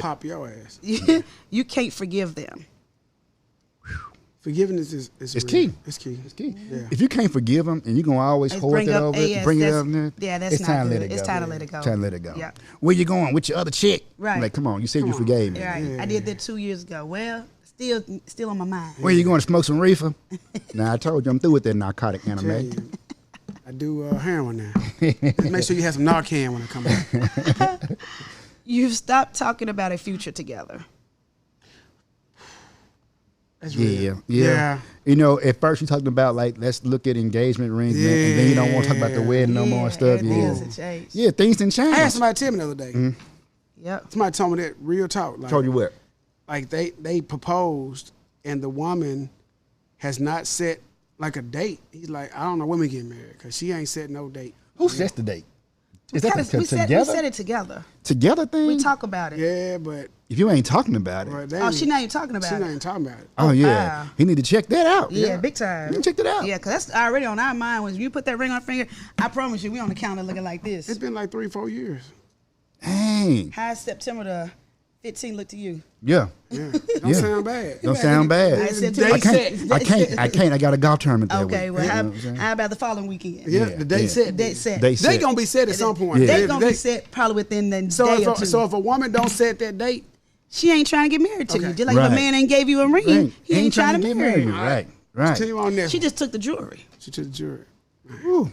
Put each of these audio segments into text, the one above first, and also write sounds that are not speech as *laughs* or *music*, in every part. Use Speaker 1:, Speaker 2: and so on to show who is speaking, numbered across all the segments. Speaker 1: pop your ass.
Speaker 2: *laughs* you can't forgive them.
Speaker 1: Forgiveness is, is
Speaker 3: It's
Speaker 1: real.
Speaker 3: key.
Speaker 1: It's key.
Speaker 3: It's key.
Speaker 1: Yeah.
Speaker 3: If you can't forgive them and you're gonna always
Speaker 2: Let's
Speaker 3: hold
Speaker 2: bring
Speaker 3: that
Speaker 2: up
Speaker 3: over,
Speaker 2: AS,
Speaker 3: bring it
Speaker 2: that's-
Speaker 3: up there.
Speaker 2: yeah, that's
Speaker 3: it's
Speaker 2: not
Speaker 3: time To
Speaker 2: good.
Speaker 3: let it
Speaker 2: It's
Speaker 3: go.
Speaker 2: time to let it go.
Speaker 3: Time to let it go.
Speaker 2: Yep.
Speaker 3: Where you going with your other chick?
Speaker 2: Right.
Speaker 3: Like, come on, you said you forgave me.
Speaker 2: Right. I did that two years ago. Well, still still on my
Speaker 3: *laughs*
Speaker 2: mind.
Speaker 3: Where you going to smoke some reefer? now I told you I'm through with that narcotic anime.
Speaker 1: Tell you, I do uh, heroin
Speaker 3: *laughs*
Speaker 1: now. Just make sure you have some Narcan when I come back.
Speaker 2: You've stopped talking about a future together.
Speaker 1: That's
Speaker 3: Yeah,
Speaker 1: real.
Speaker 3: yeah, You know, at first you talking about like let's look at engagement rings, man, and then you don't want to talk about the
Speaker 1: Yeah.
Speaker 3: wedding no more and stuff.
Speaker 2: everything
Speaker 3: Yeah,
Speaker 2: is a change.
Speaker 3: yeah, things didn't change.
Speaker 1: I had somebody tell me the other day.
Speaker 2: Yep.
Speaker 1: Somebody told me that real talk. Like,
Speaker 3: Mm-hmm. told you what?
Speaker 1: like they they proposed and the woman has not set like a date. He's like, I don't know when we get married because she ain't set no date.
Speaker 3: Who sets the date? Is that
Speaker 2: Kinda-
Speaker 3: the,
Speaker 2: we, said, we
Speaker 3: together? Mm.
Speaker 2: said it together.
Speaker 3: together thing?
Speaker 2: We talk about it.
Speaker 1: Yeah, but,
Speaker 3: if you ain't talking about it,
Speaker 1: but they
Speaker 2: Oh,
Speaker 1: ain't-
Speaker 2: she not even talking
Speaker 1: she
Speaker 2: about
Speaker 1: not
Speaker 2: it.
Speaker 1: even talking about it.
Speaker 3: oh yeah,
Speaker 2: wow.
Speaker 3: he need to check that out.
Speaker 2: Yeah, big time.
Speaker 3: You check that out.
Speaker 2: Yeah, because that's already on our mind. When you put that ring on our finger, I promise you, we on the counter looking like
Speaker 1: It's
Speaker 2: this.
Speaker 1: been like three, four
Speaker 3: *laughs*
Speaker 1: years.
Speaker 3: Dang.
Speaker 2: How is September the 15 look to you?
Speaker 3: Yeah.
Speaker 1: Yeah, don't
Speaker 3: Yeah.
Speaker 1: sound bad.
Speaker 3: Don't sound bad.
Speaker 2: I said
Speaker 3: I
Speaker 2: today.
Speaker 3: can't. I can't. I can't. I got a golf tournament that
Speaker 2: Okay,
Speaker 3: week.
Speaker 2: well,
Speaker 3: You know
Speaker 2: how,
Speaker 3: what I'm saying?
Speaker 2: how about the following weekend?
Speaker 1: Yeah,
Speaker 3: Yeah,
Speaker 1: the date
Speaker 3: yeah.
Speaker 1: set.
Speaker 2: Date set.
Speaker 3: They
Speaker 1: They
Speaker 3: set.
Speaker 1: gonna be set at some point.
Speaker 3: Yeah.
Speaker 2: They gonna be set probably within the
Speaker 1: So
Speaker 2: day
Speaker 1: if,
Speaker 2: or
Speaker 1: a,
Speaker 2: two.
Speaker 1: so if a woman don't set that date,
Speaker 2: she ain't trying to get married to you.
Speaker 1: Okay.
Speaker 2: Just like if
Speaker 3: Right.
Speaker 2: a man ain't gave you a ring,
Speaker 3: Right.
Speaker 2: he ain't, trying, to
Speaker 3: get
Speaker 2: marry
Speaker 3: married.
Speaker 2: you.
Speaker 3: Right. Right.
Speaker 1: continue on this.
Speaker 2: She
Speaker 1: She,
Speaker 2: just took the jewelry.
Speaker 1: she to the jury.
Speaker 3: Ooh.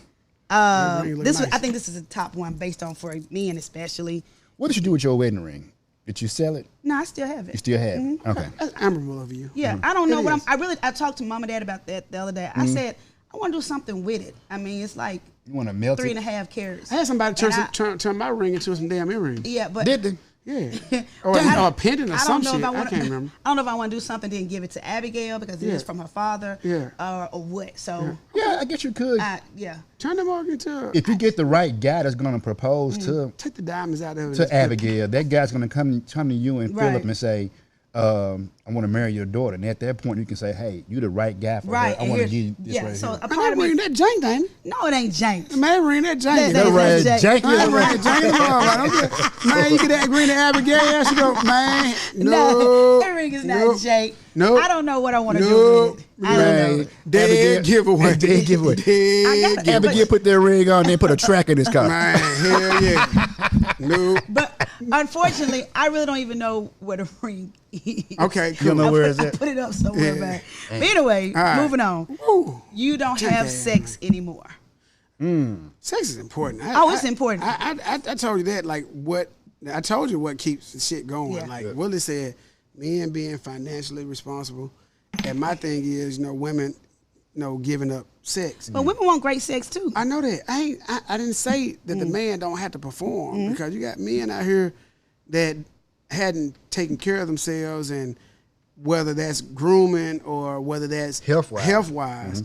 Speaker 2: Uh,
Speaker 1: That ring look
Speaker 2: this was,
Speaker 1: nice.
Speaker 2: I think this is a top one based on for men especially.
Speaker 3: What did you do with your wedding ring? Did you sell it?
Speaker 2: No, I still have it. Mm-hmm.
Speaker 3: You still have it? Okay. Mm-hmm.
Speaker 1: That's admirable of you.
Speaker 2: Yeah, I don't know
Speaker 1: It
Speaker 2: what I'm.
Speaker 1: is.
Speaker 2: I really, I talked to mom and dad about that the other day. I said I want to do something with it. I mean, it's like
Speaker 3: You want to melt
Speaker 2: three
Speaker 3: it?
Speaker 2: and a half carats.
Speaker 1: I had somebody turn,
Speaker 2: And
Speaker 1: some,
Speaker 2: I-
Speaker 1: turn turn my ring into some damn earring.
Speaker 2: Yeah, but
Speaker 3: Did they?
Speaker 1: Yeah,
Speaker 2: *laughs*
Speaker 1: or, a, or Oh,
Speaker 2: I
Speaker 1: a
Speaker 2: don't-
Speaker 1: pendant or
Speaker 2: I don't
Speaker 1: some
Speaker 2: know
Speaker 1: shit.
Speaker 2: if I,
Speaker 1: I
Speaker 2: wanna- *laughs*
Speaker 1: can't remember.
Speaker 2: I don't know if I want to do something then give it to Abigail because it
Speaker 1: Yeah.
Speaker 2: is from her father.
Speaker 1: Yeah.
Speaker 2: Or, or what? So
Speaker 3: Yeah, I guess you could.
Speaker 2: I yeah.
Speaker 1: Turn the mark into.
Speaker 3: if you get the right guy that's going to propose
Speaker 2: Mm.
Speaker 3: to
Speaker 1: take the diamonds out of it.
Speaker 3: to Abigail, that guy's going to come come to you and Philip
Speaker 2: Right.
Speaker 3: and say, um, "I want to marry your daughter." And at that point, you can say, "Hey, you're the right guy for
Speaker 2: Right.
Speaker 3: her. I
Speaker 2: and
Speaker 3: want to
Speaker 2: here's-
Speaker 3: give you this
Speaker 2: yeah.
Speaker 3: right
Speaker 2: so
Speaker 3: here."
Speaker 2: a
Speaker 1: Man,
Speaker 2: part
Speaker 1: that
Speaker 2: of me,
Speaker 1: ring, that jank thing.
Speaker 2: no, it ain't jank.
Speaker 1: Man, ring that jank.
Speaker 2: That-
Speaker 3: That
Speaker 2: that's
Speaker 3: right,
Speaker 2: Jack-
Speaker 3: Jack,
Speaker 1: Man,
Speaker 3: you-
Speaker 1: ring that
Speaker 3: *laughs*
Speaker 1: jank. on. I don't get- Man, you get that ring to
Speaker 2: *laughs*
Speaker 1: Abigail. She go, man, no.
Speaker 2: that ring is not
Speaker 1: nope,
Speaker 2: jank.
Speaker 1: Nope.
Speaker 2: I don't know what I want to do
Speaker 1: Nope.
Speaker 2: with it. I don't know.
Speaker 3: Right.
Speaker 1: Dead
Speaker 3: Abigail-
Speaker 1: giveaway.
Speaker 3: Dead giveaway.
Speaker 1: *laughs*
Speaker 2: I
Speaker 1: Dead
Speaker 2: got-
Speaker 1: giveaway.
Speaker 3: Abigail put their ring on, then put a track in his car.
Speaker 1: Man, hell yeah. Nope.
Speaker 2: But unfortunately, I really don't even know where the *laughs* ring is.
Speaker 1: Okay,
Speaker 3: You don't
Speaker 1: cool.
Speaker 3: know
Speaker 2: I
Speaker 3: where
Speaker 2: put,
Speaker 3: is
Speaker 2: I
Speaker 3: it?
Speaker 2: put it up somewhere,
Speaker 1: Yeah.
Speaker 2: man. But anyway,
Speaker 1: right.
Speaker 2: moving on.
Speaker 1: Woo.
Speaker 2: You don't
Speaker 1: Take
Speaker 2: have
Speaker 1: that.
Speaker 2: sex anymore.
Speaker 1: Sex is important. I,
Speaker 2: Oh, it's
Speaker 1: I-
Speaker 2: important.
Speaker 1: I, I, I I told you that. Like what I told you, what keeps the shit going.
Speaker 2: Yeah.
Speaker 1: Like Willie said, men being financially responsible, and my thing is, you know, women, you know, giving up sex.
Speaker 2: But women want great sex too.
Speaker 1: I know that. I ain't. I, I didn't say that
Speaker 2: Mm.
Speaker 1: the man don't have to perform
Speaker 2: Mm-hmm.
Speaker 1: because you got men out here that hadn't taken care of themselves, and whether that's grooming or whether that's
Speaker 3: Health-wise. Mm-hmm.
Speaker 1: health wise,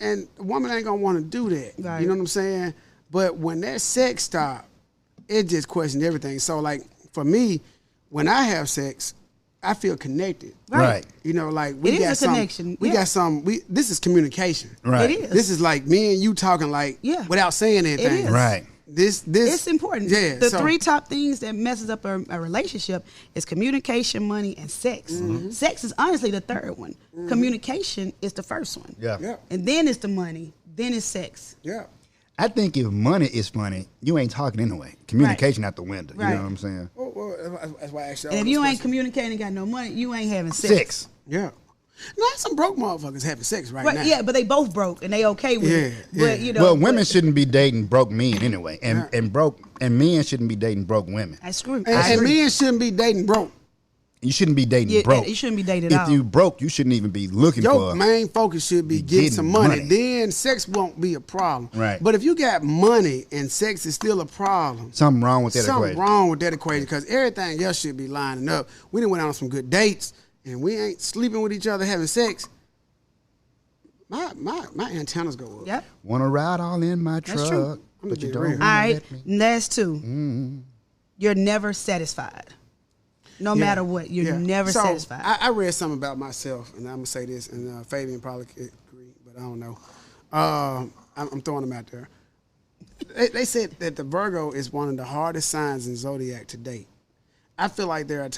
Speaker 1: and a woman ain't gonna want to do that.
Speaker 2: Right.
Speaker 1: You know what I'm saying? But when that sex stop, it just questions everything. So like for me, when I have sex, I feel connected.
Speaker 3: Right.
Speaker 1: You know, like we
Speaker 2: It is
Speaker 1: got
Speaker 2: a
Speaker 1: some,
Speaker 2: connection,
Speaker 1: We
Speaker 2: yeah.
Speaker 1: got some. We this is communication.
Speaker 3: Right.
Speaker 2: It is.
Speaker 1: This is like me and you talking like
Speaker 2: Yeah.
Speaker 1: without saying anything.
Speaker 2: is.
Speaker 3: Right.
Speaker 1: This this
Speaker 2: It's important.
Speaker 1: Yeah.
Speaker 2: the
Speaker 1: so-
Speaker 2: three top things that messes up a, a relationship is communication, money, and sex.
Speaker 1: Mm-hmm.
Speaker 2: Sex is honestly the third one. Communication is the first one.
Speaker 3: Yeah.
Speaker 1: Yeah.
Speaker 2: And then it's the money. Then it's sex.
Speaker 1: Yeah.
Speaker 3: I think if money is funny, you ain't talking anyway. Communication out the window. You
Speaker 2: Right.
Speaker 3: know what I'm saying?
Speaker 1: Oh, Well, well, Oh, that's why I asked you.
Speaker 2: And if you ain't communicating, got no money, you ain't having sex.
Speaker 3: Six.
Speaker 1: Yeah. Now some broke motherfuckers having sex right, now.
Speaker 2: Right, yeah, but they both broke and they okay with it.
Speaker 1: Yeah,
Speaker 2: But
Speaker 1: yeah.
Speaker 2: you know,
Speaker 3: well, women
Speaker 2: but-
Speaker 3: shouldn't be dating broke men anyway, and and broke and men shouldn't be dating broke women.
Speaker 2: I screw.
Speaker 1: And,
Speaker 2: I
Speaker 1: and
Speaker 2: agree.
Speaker 1: men shouldn't be dating broke.
Speaker 3: You shouldn't be dating
Speaker 2: Yeah,
Speaker 3: broke.
Speaker 2: you shouldn't be dating at
Speaker 3: If
Speaker 2: all.
Speaker 3: you broke, you shouldn't even be looking
Speaker 1: Your
Speaker 3: for.
Speaker 1: main focus should be
Speaker 3: Be
Speaker 1: getting,
Speaker 3: getting
Speaker 1: some money.
Speaker 3: money.
Speaker 1: Then sex won't be a problem.
Speaker 3: Right.
Speaker 1: But if you got money and sex is still a problem,
Speaker 3: Something wrong with that
Speaker 1: something
Speaker 3: equation.
Speaker 1: wrong with that equation because everything else should be lining up. We didn't went out on some good dates and we ain't sleeping with each other having sex. My my my antennas go up.
Speaker 2: Yep.
Speaker 3: Wanna ride all in my truck,
Speaker 1: That's true. I'm
Speaker 3: but
Speaker 1: gonna
Speaker 3: you
Speaker 1: be
Speaker 3: don't.
Speaker 1: real.
Speaker 3: wanna
Speaker 2: All right.
Speaker 3: let me.
Speaker 2: Last 2 You're never satisfied. No matter what, you're
Speaker 1: Mm-hmm. Yeah.
Speaker 2: never
Speaker 1: So,
Speaker 2: satisfied.
Speaker 1: I, I read something about myself, and I'm gonna say this, and uh, Fabian probably could agree, but I don't know. Um, I'm, I'm throwing them out there. They, they said that the Virgo is one of the hardest signs in zodiac to date, I feel like there are